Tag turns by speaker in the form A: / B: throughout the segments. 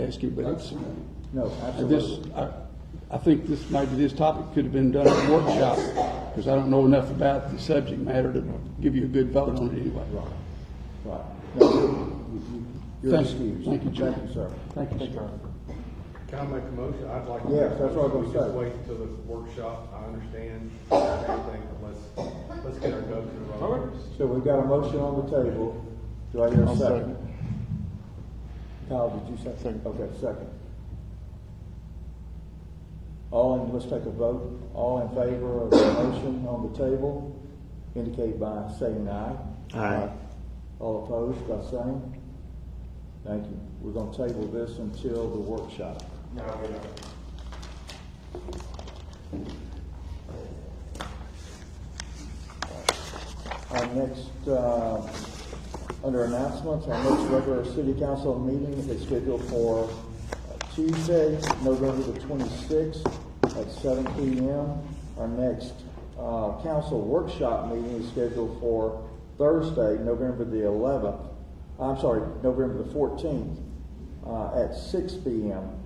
A: ask you, but it's,
B: No,
A: this,
B: absolutely.
A: I, I think this, maybe this topic could have been done at a workshop, because I don't know enough about the subject matter to give you a good vote on it anyway.
B: Right, right. No, you- you- You're
A: Thank-
B: excused.
A: thank you, Jim.
B: Thank you, sir.
A: Thank you, sir.
C: Can I make a motion? I'd like. to-
B: Yes, that's what I was gonna
C: We Just
B: say.
C: wait until the workshop, I understand everything, but let's, let's get our ducks in a row.
B: So we've got a motion on the table. Do I hear a second? Kyle, did you say? Second. Okay, second. All in, let's take a vote. All in favor of the motion on the table indicate by saying aye. Aye. All opposed by saying? Thank you. We're gonna table this until the workshop. Our next, uh, under announcements, our next regular city council meeting is scheduled for uh, Tuesday, November the twenty-sixth at seven P M. Our next, uh, council workshop meeting is scheduled for Thursday, November the eleventh, I'm sorry, November the fourteenth, uh, at six P M.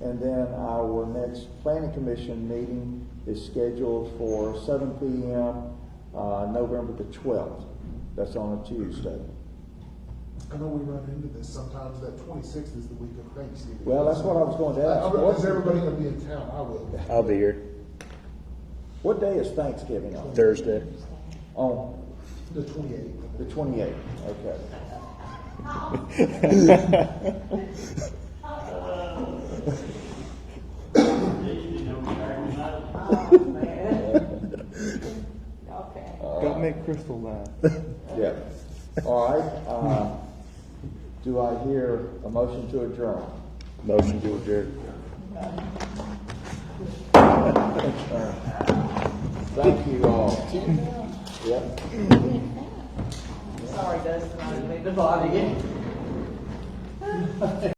B: And then our next planning commission meeting is scheduled for seven P M uh, November the twelfth. That's on a Tuesday.
D: I know we run into this sometimes, that twenty-sixth is the week of Thanksgiving.
B: Well, that's what I was going to
D: I-
B: ask.
D: I- Uh, Is
B: What,
D: everybody gonna be in town? I will.
E: I'll be here
B: what day is Thanksgiving on?
E: Thursday.
B: On
D: The twenty-eighth.
B: the twenty-eighth, okay.
E: Don't make Crystal laugh.
B: Yeah. All right, uh, do I hear a motion to adjourn?
E: Motion to adjourn.
B: Thank you all. Yep.
F: Sorry, Dustin, I didn't mean to bother you.